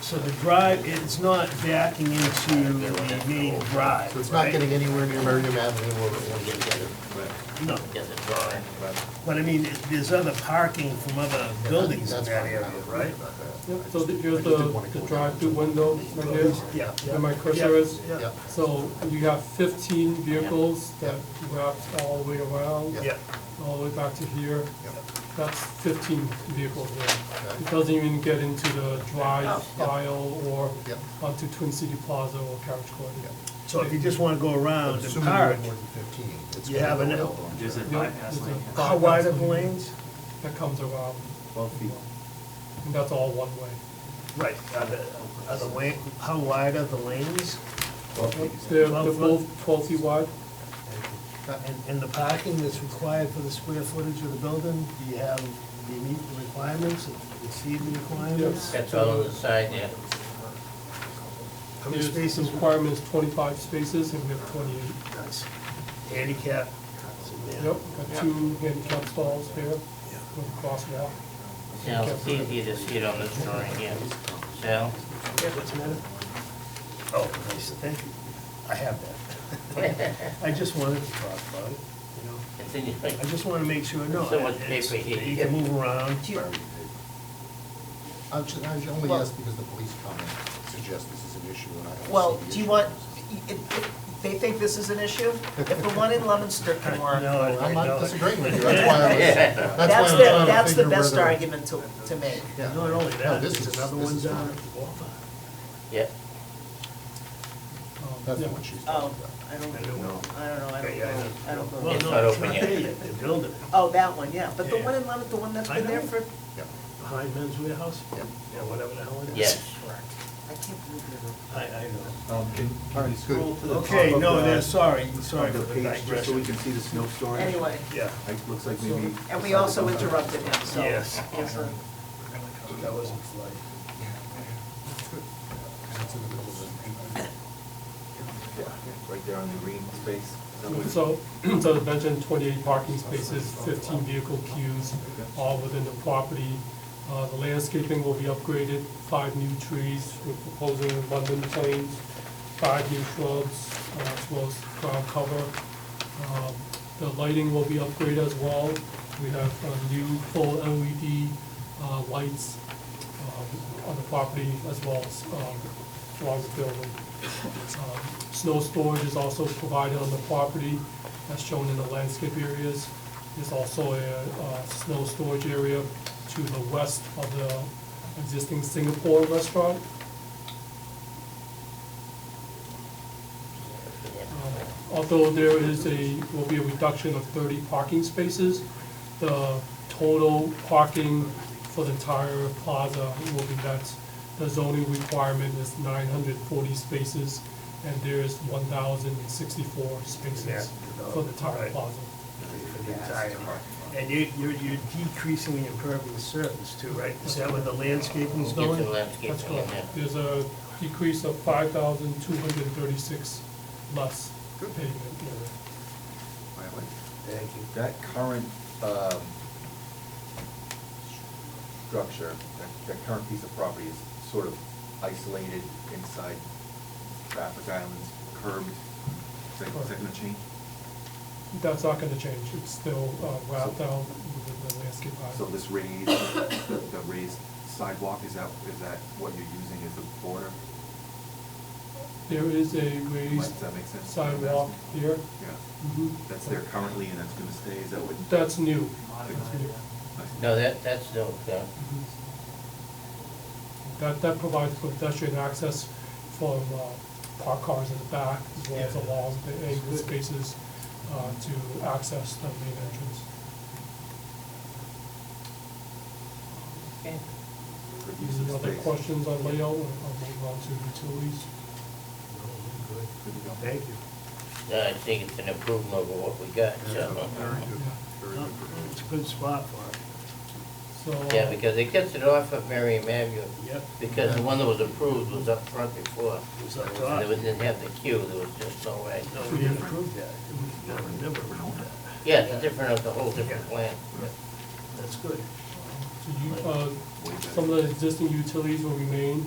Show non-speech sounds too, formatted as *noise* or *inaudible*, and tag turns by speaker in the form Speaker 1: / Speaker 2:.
Speaker 1: So the drive, it's not backing into the main drive,
Speaker 2: So it's not
Speaker 1: right?
Speaker 2: getting anywhere near Merriam Avenue or or getting better.
Speaker 1: No,
Speaker 3: Doesn't draw in.
Speaker 1: but I mean, it- there's other parking from other buildings in
Speaker 2: That's
Speaker 1: that
Speaker 2: fine.
Speaker 1: area, right?
Speaker 4: Yep, so the- here's the, the drive-through window right here,
Speaker 1: Yeah.
Speaker 4: where my cursor is.
Speaker 1: Yeah,
Speaker 2: Yep,
Speaker 4: So you have fifteen vehicles that wrapped all the way around,
Speaker 1: yeah,
Speaker 4: all the way back to here.
Speaker 2: yep.
Speaker 4: That's fifteen vehicles there.
Speaker 2: Okay.
Speaker 4: It doesn't even get into the
Speaker 1: Oh,
Speaker 4: drive
Speaker 2: Yeah.
Speaker 4: aisle or
Speaker 2: Yep.
Speaker 4: onto Twin City Plaza or Carriage Court.
Speaker 2: Yep.
Speaker 1: so if you just wanna go around and
Speaker 2: Assuming you have
Speaker 1: park,
Speaker 2: more than fifteen. it's
Speaker 1: Uh, You
Speaker 2: gonna
Speaker 1: have
Speaker 2: go
Speaker 1: an-
Speaker 2: well on
Speaker 5: There's a
Speaker 4: Yep,
Speaker 5: bypass
Speaker 4: there's a
Speaker 5: lane.
Speaker 1: how wide are the
Speaker 4: bypass lane
Speaker 1: lanes?
Speaker 4: That comes around,
Speaker 5: Twelve feet.
Speaker 4: and that's all one way.
Speaker 1: Right, are the, are the lane, how wide are the lanes?
Speaker 5: Twelve feet.
Speaker 4: They're, they're
Speaker 1: Twelve
Speaker 4: both twelve feet wide.
Speaker 1: And, and the parking that's required for the square footage of the building, do you have, do you meet the requirements, exceed the requirements?
Speaker 3: That's all on the side there.
Speaker 1: How many
Speaker 4: There's-
Speaker 1: spaces?
Speaker 4: The requirement is twenty-five spaces, and we have twenty-eight.
Speaker 1: Nice. Handicap.
Speaker 4: Yep, got two handicap stalls there, with crosswalk.
Speaker 3: Now, it's easier to see it on this drawing here. So,
Speaker 1: What's the matter? Oh, nice, thank you. I have that. *laughs*
Speaker 3: it's
Speaker 1: I just wanted to talk about it, you know?
Speaker 3: in your,
Speaker 1: I just wanna make sure, no,
Speaker 3: So much
Speaker 1: it's-
Speaker 3: paper here.
Speaker 1: you can move around.
Speaker 2: I ju- I only
Speaker 6: Well-
Speaker 2: ask because the police comment suggests this is an issue and I don't see the
Speaker 6: Well, do you
Speaker 2: issue.
Speaker 6: want, it, it, they think this is an issue? If the one in Leominster can
Speaker 1: *laughs*
Speaker 6: work,
Speaker 1: No, I- I
Speaker 2: I'm
Speaker 1: know
Speaker 2: not
Speaker 1: it.
Speaker 2: disagreeing
Speaker 1: *laughs*
Speaker 2: with you, that's why I was,
Speaker 3: Yeah.
Speaker 2: that's why I'm
Speaker 6: that's the,
Speaker 2: trying to
Speaker 6: that's the
Speaker 2: figure
Speaker 6: best
Speaker 2: whether-
Speaker 6: argument to, to make.
Speaker 2: Yeah.
Speaker 1: Not only
Speaker 2: No,
Speaker 1: that,
Speaker 2: this
Speaker 1: there's
Speaker 2: is-
Speaker 1: another
Speaker 2: this
Speaker 1: one
Speaker 2: is
Speaker 1: down at
Speaker 2: fine.
Speaker 1: the Walmart.
Speaker 3: yeah,
Speaker 4: Um,
Speaker 2: That's
Speaker 4: yeah.
Speaker 2: what she's
Speaker 6: Oh,
Speaker 2: talking
Speaker 6: I
Speaker 1: I
Speaker 6: don't, I don't
Speaker 1: don't
Speaker 6: know,
Speaker 1: know.
Speaker 6: I don't know, I don't
Speaker 1: Well,
Speaker 6: know.
Speaker 3: It's
Speaker 1: no,
Speaker 3: not
Speaker 1: it's
Speaker 3: open
Speaker 1: not
Speaker 3: yet.
Speaker 1: there yet, they're building it,
Speaker 6: Oh, that one, yeah, but the
Speaker 1: Yeah.
Speaker 6: one in Leominster, the one that's
Speaker 1: I
Speaker 6: been there
Speaker 1: know.
Speaker 6: for, I
Speaker 2: about. Yeah.
Speaker 1: behind Men's Warehouse,
Speaker 2: Yeah.
Speaker 1: yeah, whatever the hell it is.
Speaker 3: yes.
Speaker 6: can't believe they're.
Speaker 1: I, I know.
Speaker 5: Um, can, can you scroll to the top of the?
Speaker 1: Okay, no,
Speaker 2: Uh,
Speaker 1: that's, sorry, sorry
Speaker 5: On
Speaker 1: for
Speaker 5: the
Speaker 1: the
Speaker 5: page, just so we
Speaker 1: digression.
Speaker 5: can see the snow storage?
Speaker 6: Anyway,
Speaker 1: Yeah,
Speaker 5: It looks like maybe.
Speaker 6: and we also interrupted him, so.
Speaker 1: Yes.
Speaker 6: Yes, sir.
Speaker 1: that wasn't flight.
Speaker 2: *laughs* And it's in the middle of the-
Speaker 5: Yeah, Right there on the green space.
Speaker 4: So, *clears throat* so as mentioned, twenty-eight parking spaces, fifteen vehicle queues, all within the property. Uh, the landscaping will be upgraded, five new trees, we're proposing abundant planes, five new shrubs, uh, as well as ground cover. Um, The lighting will be upgraded as well, we have uh, new full LED, uh, lights, um, on the property as well as, um, along the building. Um, Snow storage is also provided on the property, as shown in the landscape areas. There's also a uh, snow storage area to the west of the existing Singapore restaurant. Um, Although there is a, will be a reduction of thirty parking spaces, the total parking for the entire plaza will be met. The zoning requirement is nine hundred forty spaces, and there is one thousand and sixty-four
Speaker 1: Yeah.
Speaker 4: spaces for the entire
Speaker 1: Right.
Speaker 4: plaza.
Speaker 1: for the entire park. And you, you're, you're decreasing the impervious surface too, right? Is that where the landscaping's
Speaker 3: Get the
Speaker 1: going?
Speaker 4: That's
Speaker 3: landscaping in
Speaker 4: correct.
Speaker 3: there.
Speaker 4: There's a decrease of five thousand two hundred thirty-six less
Speaker 2: Good.
Speaker 4: pavement area.
Speaker 2: Wait, wait.
Speaker 1: Thank you.
Speaker 5: That current, um, structure, that, that current piece of property is sort of isolated inside traffic islands, curbed. Is that, is that gonna change?
Speaker 4: That's not gonna change, it's still uh, wrapped out within the landscape.
Speaker 5: So
Speaker 4: island.
Speaker 5: this raised, the the raised sidewalk, is that, is that what you're using as the border?
Speaker 4: There is a raised
Speaker 5: Does that make sense?
Speaker 4: sidewalk here.
Speaker 5: Yeah,
Speaker 4: Mhm.
Speaker 5: that's there currently and that's gonna stay, is that what?
Speaker 4: That's new.
Speaker 3: No, that, that's no, no.
Speaker 4: That, that provides for pedestrian access from uh, parked cars in the back, as well as the walls, the angled spaces uh, to access the main entrance.
Speaker 3: Okay.
Speaker 5: Good use of
Speaker 4: Any other
Speaker 5: space.
Speaker 4: questions on layout, or move on to utilities?
Speaker 1: Thank you.
Speaker 3: No, I think it's an improvement over what we got, so.
Speaker 1: It's a good spot for it.
Speaker 4: So.
Speaker 3: Yeah, because it gets it off of Merriam Avenue,
Speaker 1: Yep.
Speaker 3: because the one that was approved was up front before.
Speaker 1: It was up
Speaker 3: And
Speaker 1: top.
Speaker 3: it was- didn't have the queue, there was just no way.
Speaker 1: No, we didn't approve that. We never, never approved that.
Speaker 3: Yeah, it's different, it's a whole different plan.
Speaker 1: That's good.
Speaker 4: So you, uh, some of the existing utilities will remain,